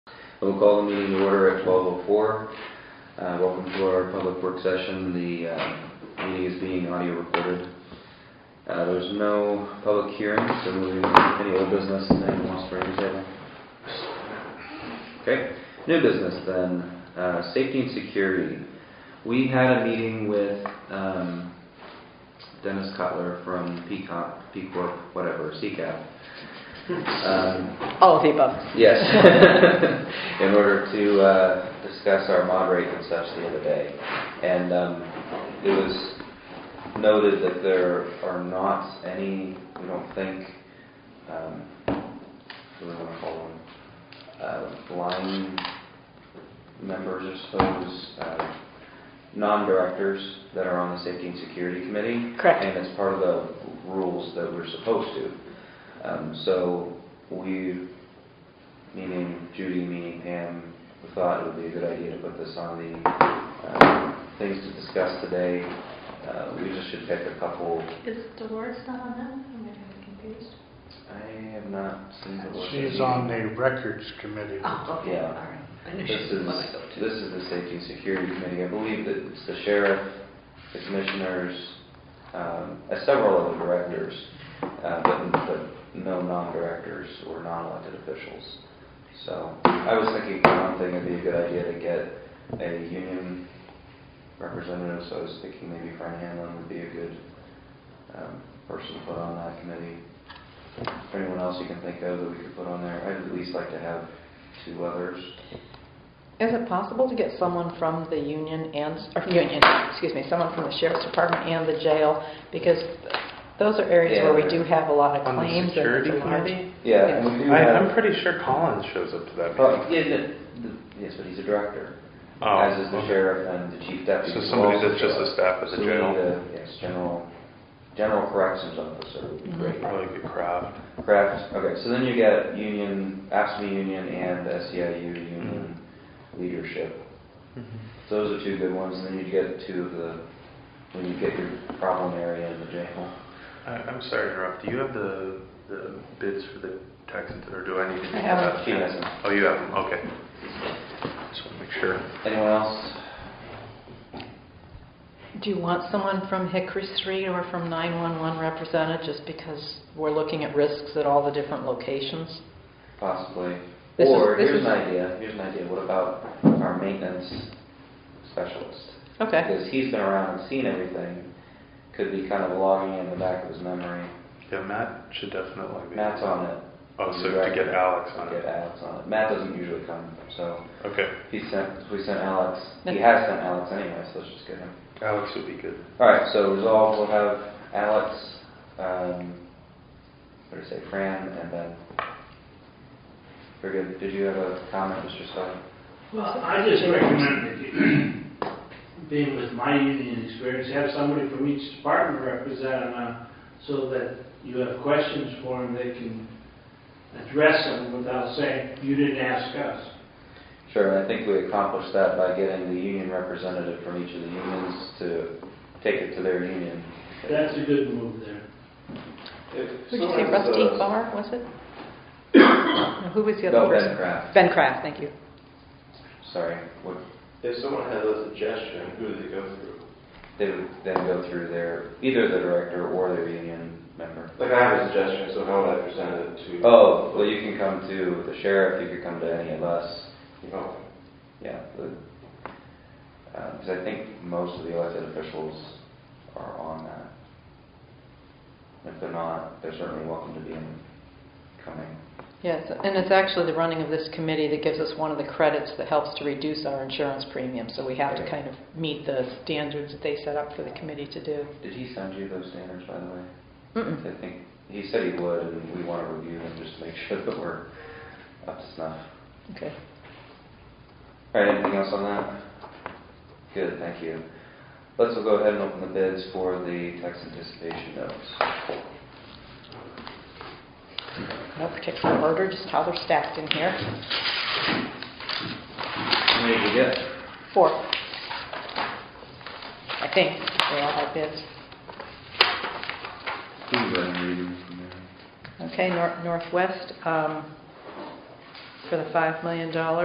I will call the meeting to order at 12:04. Uh, Welcome to our public work session. The uh, meeting is being audio recorded. Uh, There's no public hearing, so moving on to any old business that anyone wants to bring to the table. Okay, new business then, Uh, safety and security. We had a meeting with um, Dennis Cutler from PCOP, P Corp, whatever, CCAP. Um, All of the above. Yes. In order to uh, discuss our mod rate and such the other day. And um, it was noted that there are not any, we don't think, um, what do we want to call them? Uh, Line members, I suppose, uh, non-directors that are on the Safety and Security Committee. Correct. And it's part of the rules that we're supposed to. Um, So we meaning Judy, meaning Pam, we thought it would be a good idea to put this on the um, things to discuss today. Uh, We just should pick a couple. Is Dolores not on that one? I'm getting confused. I have not seen the list. She's on the records committee. Oh, okay, Yeah. all right. I knew This she was the is, one I go to. this is the Safety and Security Committee. I believe that it's the sheriff, the commissioners, um, uh, several other directors, uh, but but no non-directors or non-elected officials. So I was thinking, for one thing, it'd be a good idea to get a union representative, so I was thinking maybe Fran Hanlon would be a good um, person to put on that committee. Is there anyone else you can think of that we could put on there? I'd at least like to have two others. Is it possible to get someone from the union and, or union, excuse me, someone from the sheriff's department and the jail? Because those are areas where we do have a lot of On the claims. and security it's a large- committee? Yeah, and Yes. we do I, have. I'm pretty sure Collins shows up to that Oh, meeting. yeah, the- the- yes, but he's a director. Oh, As is the okay. sheriff and the chief deputy. So who somebody also that's just show a up. staff at the So we jail. need a- Yes, general, general corrections officer would be Mhm. great. Probably good crowd. Craft, okay, so then you get union, ASME union and SEIU union Mm-hmm. leadership. So Those are two good ones, and then you get two of the, when you get your problem area in the jail. I, I'm sorry to interrupt. Do you have the, the bids for the tax, or do I need to? I have them. that? She has them. Oh, you have them, okay. Just want to make sure. Anyone else? Do you want someone from Hickory Street or from 911 represented, just because we're looking at risks at all the different locations? Possibly. This is- Or, this here's is- an idea, here's an idea, what about our maintenance specialist? Okay. Because he's been around and seen everything, could be kind of logging in the back of his memory. Yeah, Matt should definitely be. Matt's on it. Oh, so to get Alex on Get it. Alex on it. Matt doesn't usually come, so Okay. he sent, we sent Alex, he That's- has sent Alex anyway, so let's just get him. Alex would be good. All right, so resolve, we'll have Alex, um, what did I say, Fran, and then, very good. Did you have a comment, Mr. Sutton? Well, I just recommend that you, being with my union experience, have somebody from each department represent them, uh, so that you have questions for them, they can address them without saying, you didn't ask us. Sure, and I think we accomplished that by getting the union representative from each of the unions to take it to their union. That's a good move there. Who'd you say, Rusty Barr, was it? No, Who was the No, other Ben person? Kraft, Ben Kraft, thank you. sorry. Would If someone has a suggestion, who do they go through? They would then go through their, either the director or their union member. Like, I have a suggestion, so how would I present it to? Oh, well, you can come to the sheriff, you could come to any of us. Oh, Yeah, because I think most of the elected officials are on that. If they're not, they're certainly welcome to be in, coming. Yes, and it's actually the running of this committee that gives us one of the credits that helps to reduce our insurance premium, so we have to kind of meet the standards that they set up for the committee to do. Did he send you those standards, by the way? Mm-mm. I think, he said he would, and we want to review them just to make sure that we're up to snuff. Okay. All right, anything else on that? Good, thank you. Let's go ahead and open the bids for the tax anticipation notes. No particular order, just how they're stacked in here. How many did you get? Four. I think they all have bids. Please let me read them from there. Okay, Nor- Northwest, um, for the $5 million,